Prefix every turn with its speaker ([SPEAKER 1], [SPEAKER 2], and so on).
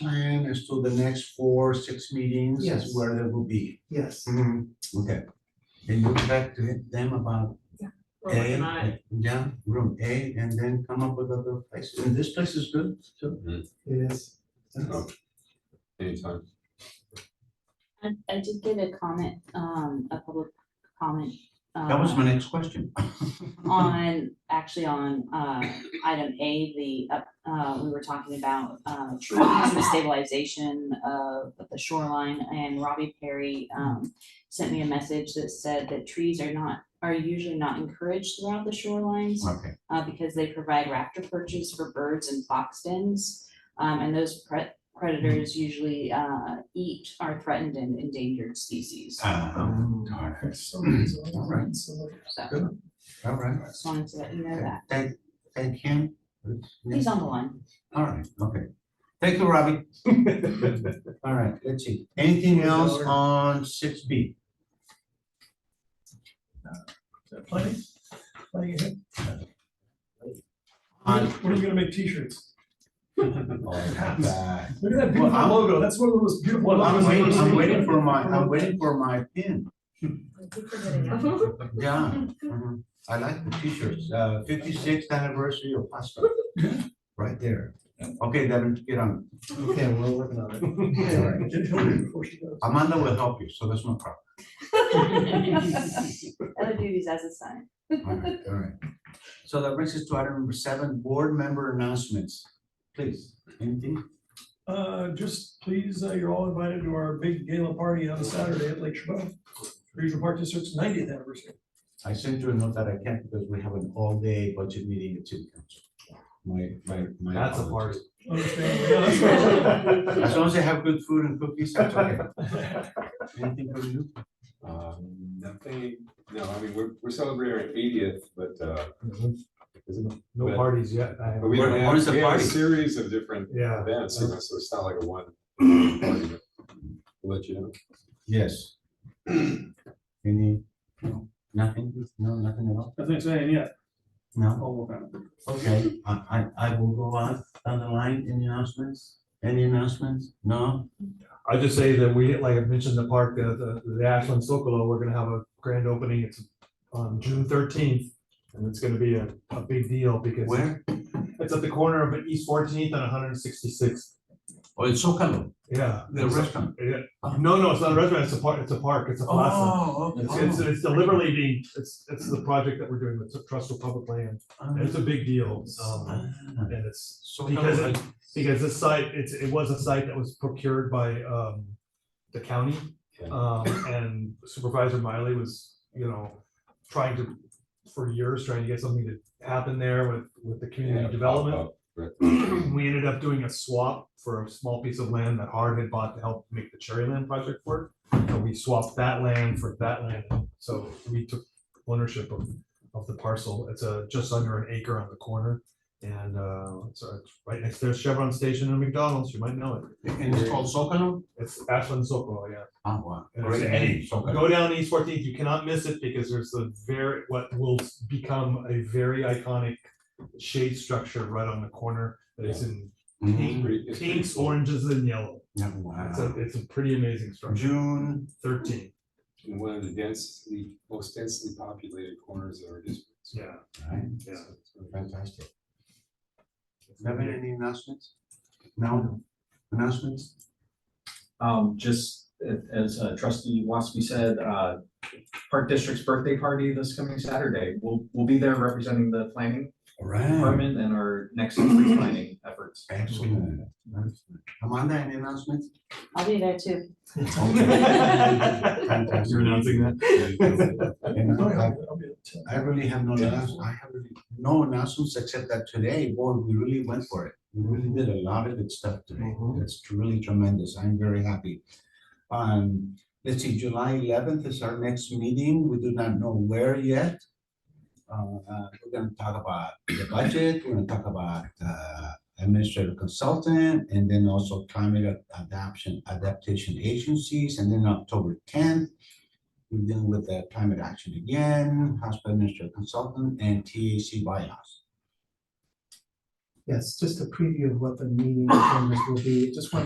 [SPEAKER 1] plan as to the next four, six meetings
[SPEAKER 2] Yes.
[SPEAKER 1] is where they will be.
[SPEAKER 2] Yes.
[SPEAKER 3] Mm.
[SPEAKER 1] Mhm, okay. And look back to hit them about
[SPEAKER 4] We're
[SPEAKER 1] A,
[SPEAKER 4] working on it.
[SPEAKER 1] yeah, room A, and then come up with other places. And this place is good, too.
[SPEAKER 2] It is.
[SPEAKER 5] Oh, Anytime.
[SPEAKER 6] I, I did get a comment, um, a public comment.
[SPEAKER 1] That was
[SPEAKER 6] uh,
[SPEAKER 1] my next question.
[SPEAKER 6] On, actually on, uh, item A, the, up- uh, we were talking about, uh, trees, the stabilization of the shoreline, and Robbie Perry, um, sent me a message that said that trees are not, are usually not encouraged throughout the shorelines
[SPEAKER 1] Okay,
[SPEAKER 6] uh, because they provide raptor perches for birds and fox dens. Um, and those pre- predators usually, uh, eat our threatened and endangered species.
[SPEAKER 1] uh,
[SPEAKER 2] Um,
[SPEAKER 1] darn it.
[SPEAKER 2] so- so-
[SPEAKER 1] All right.
[SPEAKER 2] so-
[SPEAKER 6] So
[SPEAKER 1] good, all right.
[SPEAKER 6] just wanted to let you know that.
[SPEAKER 1] Thank, thank him.
[SPEAKER 6] He's on the line.
[SPEAKER 1] All right, okay. Thank you, Robbie. All right, let's see. Anything else on six B?
[SPEAKER 7] Plenty, plenty ahead.
[SPEAKER 1] On-
[SPEAKER 7] What are we gonna make t-shirts?
[SPEAKER 5] Um, Well,
[SPEAKER 7] Look at that
[SPEAKER 1] Well,
[SPEAKER 7] beautiful
[SPEAKER 1] I'm-
[SPEAKER 7] logo, that's one of the most beautiful.
[SPEAKER 1] Well, I'm
[SPEAKER 7] logos I've
[SPEAKER 1] waiting,
[SPEAKER 7] ever
[SPEAKER 1] I'm
[SPEAKER 7] seen.
[SPEAKER 1] waiting for my, I'm waiting for my pin.
[SPEAKER 4] I keep forgetting that.
[SPEAKER 1] Yeah. mhm. I like the t-shirts. Uh, fifty-sixth anniversary of Pasco. Right there. Okay, Devin, get on.
[SPEAKER 2] Okay, we're working on it.
[SPEAKER 1] All right.
[SPEAKER 7] Get Hillary before she goes.
[SPEAKER 1] Amanda will help you, so that's no problem.
[SPEAKER 6] Other duties as assigned.
[SPEAKER 1] All right, all right. So that brings us to item number seven, board member announcements. Please, anything?
[SPEAKER 7] Uh, just please, uh, you're all invited to our big gala party on Saturday at Lake Chabot, Regional Park District's ninetieth anniversary.
[SPEAKER 1] I sent you a note that I can't because we have an all-day budget meeting at city council. My, my, my.
[SPEAKER 3] That's a
[SPEAKER 1] apologies.
[SPEAKER 3] party.
[SPEAKER 7] Understand? Yeah, that's right.
[SPEAKER 1] As long as they have good food and cookies, that's okay. Anything from you?
[SPEAKER 5] Um, Nothing, no, I mean, we're, we're celebrating our eightieth, but, uh, isn't-
[SPEAKER 3] No parties yet. I
[SPEAKER 5] but
[SPEAKER 3] haven't-
[SPEAKER 5] we don't
[SPEAKER 1] What-
[SPEAKER 5] have-
[SPEAKER 1] what is the
[SPEAKER 5] we have a
[SPEAKER 1] party?
[SPEAKER 5] Series of different
[SPEAKER 3] Yeah.
[SPEAKER 5] events, you know, so it's not like a one. party, but we'll Let you know.
[SPEAKER 1] Yes. Any, no, nothing, no, nothing at all?
[SPEAKER 7] Nothing saying yet,
[SPEAKER 1] No,
[SPEAKER 3] Oh,
[SPEAKER 7] I'll work on it.
[SPEAKER 1] okay, I, I, I will go out on the line, any announcements? Any announcements? No?
[SPEAKER 3] I just say that we, like I mentioned, the park, uh, the, the Ashland Sokolo, we're gonna have a grand opening. It's on June thirteenth. And it's gonna be a, a big deal because
[SPEAKER 1] Where?
[SPEAKER 3] it's at the corner of East Fourteenth and one hundred and sixty-sixth.
[SPEAKER 1] Oh, it's Socalo,
[SPEAKER 3] Yeah.
[SPEAKER 1] the restaurant.
[SPEAKER 3] Yeah. No, no, it's not a restaurant. It's a park. It's a park.
[SPEAKER 7] Oh,
[SPEAKER 3] It's a plaza. It's, Oh, it's,
[SPEAKER 1] okay.
[SPEAKER 3] it's deliberately being, it's, it's the project that we're doing with Trust for Public Land. And It's a big deal. Um,
[SPEAKER 1] Ah,
[SPEAKER 3] and it's because
[SPEAKER 1] Socalo,
[SPEAKER 3] it, because this site, it's, it was a site that was procured by, um, the county.
[SPEAKER 5] Yeah.
[SPEAKER 3] Um, and Supervisor Miley was, you know, trying to, for years, trying to get something to happen there with, with the
[SPEAKER 5] Yeah, Uh,
[SPEAKER 3] community
[SPEAKER 5] pop
[SPEAKER 3] development.
[SPEAKER 5] up, right.
[SPEAKER 3] We ended up doing a swap for a small piece of land that Hard had bought to help make the Cherryland project work. And we swapped that land for that land, so we took ownership of, of the parcel. It's a, just under an acre on the corner. And, uh, it's uh, it's right next to Chevron Station and McDonald's, you might know it.
[SPEAKER 1] and it's called Socalo?
[SPEAKER 3] It's Ashland Socorro, yeah.
[SPEAKER 1] Ah, wow,
[SPEAKER 3] And
[SPEAKER 1] great
[SPEAKER 3] it's
[SPEAKER 1] name,
[SPEAKER 3] any-
[SPEAKER 1] Socalo.
[SPEAKER 3] Go down East Fourteenth, you cannot miss it because there's the very, what will become a very iconic shade structure right on the corner that is in
[SPEAKER 1] Mhm.
[SPEAKER 5] Pretty- it's pretty
[SPEAKER 3] pinks,
[SPEAKER 5] cool.
[SPEAKER 3] oranges, and yellow.
[SPEAKER 1] Yeah,
[SPEAKER 3] It's a,
[SPEAKER 1] wow.
[SPEAKER 3] it's a pretty amazing structure.
[SPEAKER 1] June,
[SPEAKER 3] Thirteen,
[SPEAKER 5] In one of the densely, most densely populated corners of our district. so
[SPEAKER 3] yeah.
[SPEAKER 1] right,
[SPEAKER 3] Yeah.
[SPEAKER 5] it's really
[SPEAKER 1] fantastic. Devin, any announcements? No, announcements?
[SPEAKER 8] Um, just a- as uh, trustee Waspy said, uh, Park District's birthday party this coming Saturday. We'll, we'll be there representing the planning
[SPEAKER 1] All right.
[SPEAKER 8] department and our next century planning efforts.
[SPEAKER 1] Excellent. Amanda, any announcements?
[SPEAKER 6] I'll be there too.
[SPEAKER 1] Fantastic.
[SPEAKER 3] announcing that?
[SPEAKER 1] And
[SPEAKER 7] Oh, yeah,
[SPEAKER 1] I-
[SPEAKER 7] I'll be at ten.
[SPEAKER 1] I really have no announcements, I have really no announcements except that today, boy, we really went for it. We really did a lot of good stuff today.
[SPEAKER 3] Mhm.
[SPEAKER 1] That's really tremendous. I'm very happy. Um, let's see, July eleventh is our next meeting. We do not know where yet. Uh, uh, we're gonna talk about the budget, we're gonna talk about uh, administrative consultant, and then also climate ad- adaptation, adaptation agencies, and then October tenth, we're dealing with the climate action again, hospital administrative consultant, and TAC buyouts.
[SPEAKER 2] Yes, just a preview of what the meeting agendas will be. Just want